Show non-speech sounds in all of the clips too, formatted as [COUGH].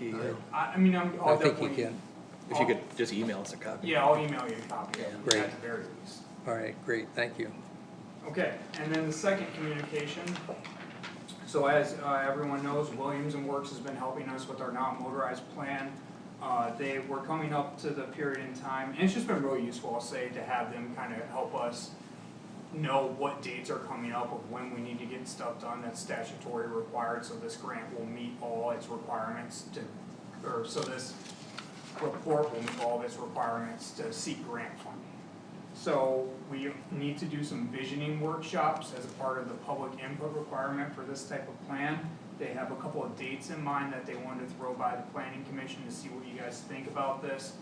Yeah. I, I mean, I'm, I I'll think you definitely. can. If you could just email us a copy. Yeah, I'll email you a copy of it Great. at the very least. All right, great, thank you. Okay, and then the second communication. So as uh, everyone knows, Williams and Works has been helping us with our non-motorized plan. Uh, They were coming up to the period in time, and it's just been really useful, I'll say, to have them kind of help us know what dates are coming up of when we need to get stuff done that's statutory required, so this grant will meet all its requirements to, or so this report will meet all of its requirements to seek grant funding. So we need to do some visioning workshops as a part of the public input requirement for this type of plan. They have a couple of dates in mind that they wanted to throw by the planning commission to see what you guys think about this.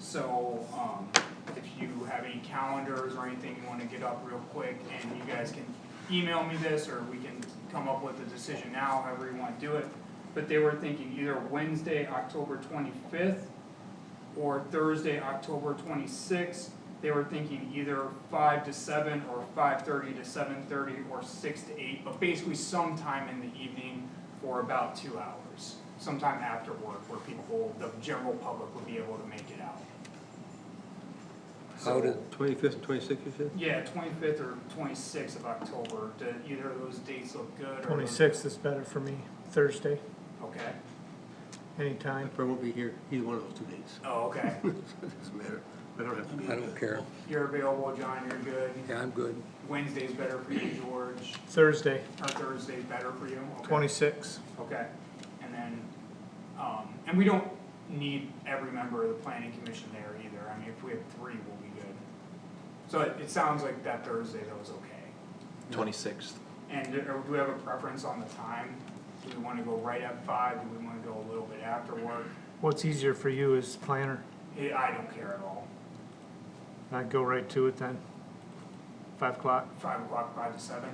So, um, if you have any calendars or anything you wanna get up real quick, and you guys can email me this, or we can come up with a decision now, however you wanna do it. But they were thinking either Wednesday, October twenty-fifth, or Thursday, October twenty-sixth. They were thinking either five to seven or five thirty to seven thirty or six to eight, but basically sometime in the evening for about two hours. Sometime after work where people, the general public would be able to make it out. How did, Twenty-fifth, twenty-sixth, you said? Yeah, twenty-fifth or twenty-sixth of October, do either of those dates look good or? Twenty-sixth is better for me, Thursday, Okay, anytime. I won't be here, either one of those two [LAUGHS] days. oh, okay, Doesn't matter, I don't have to be. I don't care. you're available, John, you're good, Yeah, I'm good. Wednesday's better for you, George, Thursday, or Thursday's better for you, okay? twenty-six. Okay, and then, um, and we don't need every member of the planning commission there either, I mean, if we have three, we'll be good. So it, it sounds like that Thursday though is okay, Twenty-sixth. and do- or do we have a preference on the time? Do we wanna go right at five, do we wanna go a little bit after work? What's easier for you as planner? Eh, I don't care at all, I'd go right to it then. Five o'clock, five o'clock, five to seven.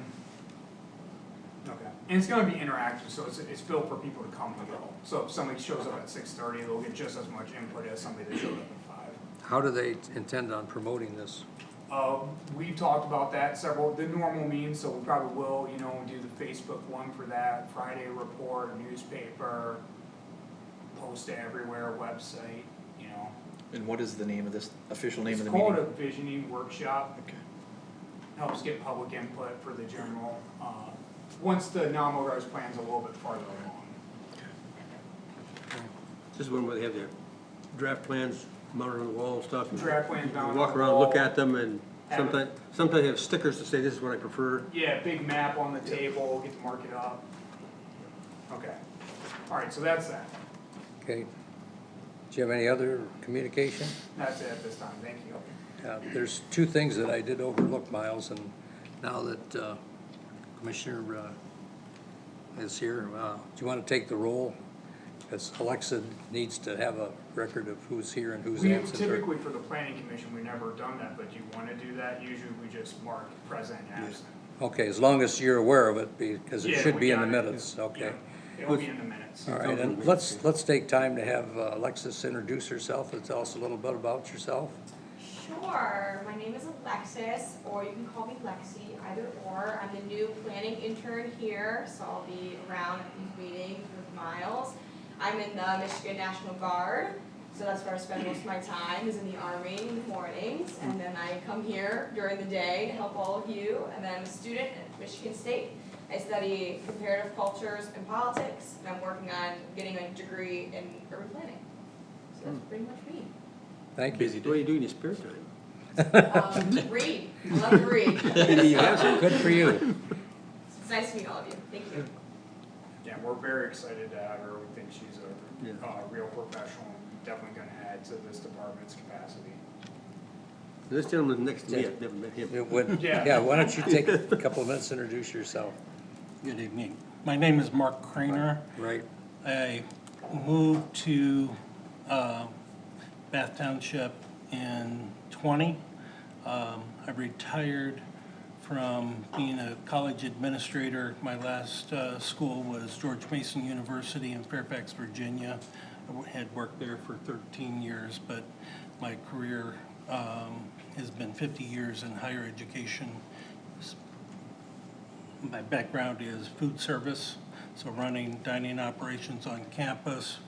Okay, and it's gonna be interactive, so it's, it's built for people to come and go, so if somebody shows up at six thirty, they'll get just as much input as somebody that showed up at five. How do they intend on promoting this? Uh, we've talked about that several, the normal means, so we probably will, you know, do the Facebook one for that, Friday report, newspaper, post it everywhere, website, you know. And what is the name of this, official name of the It's meeting? called a visioning workshop, Okay. helps get public input for the general, uh, once the non-motorized plan's a little bit farther along. This is one where they have their draft plans mounted on the wall and stuff. Draft plans mounted on Walk the around, look wall. at them, and Have it. sometimes, sometimes they have stickers to say, this is what I prefer. Yeah, big map on the table, get to mark it up. Okay, alright, so that's that, Okay. Do you have any other communication? that's it at this time, thank you. Uh, There's two things that I did overlook, Miles, and now that uh, Commissioner uh, is here, uh, do you want to take the role? Because Alexa needs to have a record of who's here and who's We absent. or- typically, for the planning commission, we never done that, but do you wanna do that? Usually we just mark present and absent. Okay, as long as you're aware of it, because it Yeah, should we be in the got it. minutes, okay? Yeah, It'll be in the minutes. All right, and let's, let's take time to have uh, Alexis introduce herself and tell us a little bit about yourself. Sure, my name is Alexis, or you can call me Lexi, either or. I'm the new planning intern here, so I'll be around at these meetings with Miles. I'm in the Michigan National Guard, so that's where I spend most of my time, is in the Army in the mornings. And then I come here during the day to help all of you, and then I'm a student at Michigan State. I study comparative cultures and politics, and I'm working on getting a degree in urban planning. So that's pretty much me. Thank you. What do you do in your spare time? Um, read, I love to read. You have some. Good for you. It's nice to meet all of you, thank you. Yeah, we're very excited to have her. We think she's Yeah. a, uh real professional, and definitely gonna add to this department's capacity. [LAUGHS] This gentleman next to me, I've never met him. It would- Yeah. Yeah, why don't you take a couple of minutes, introduce yourself, Good evening. My name is Mark Crainer. right? I moved to uh, Bath Township in 20. Um, I retired from being a college administrator. My last uh, school was George Mason University in Fairfax, Virginia. I wo- had worked there for 13 years, but my career um, has been 50 years in higher education, my background is food service, so running dining operations on campus,